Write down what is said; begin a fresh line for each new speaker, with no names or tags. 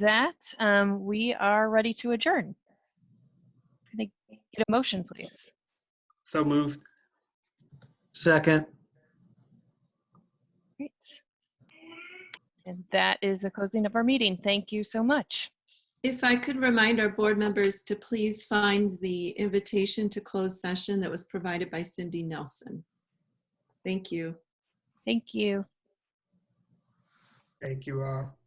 that, um, we are ready to adjourn. Can I get a motion, please?
So moved.
Second.
Great. And that is the closing of our meeting. Thank you so much.
If I could remind our board members to please find the invitation to closed session that was provided by Cindy Nelson. Thank you.
Thank you.
Thank you all.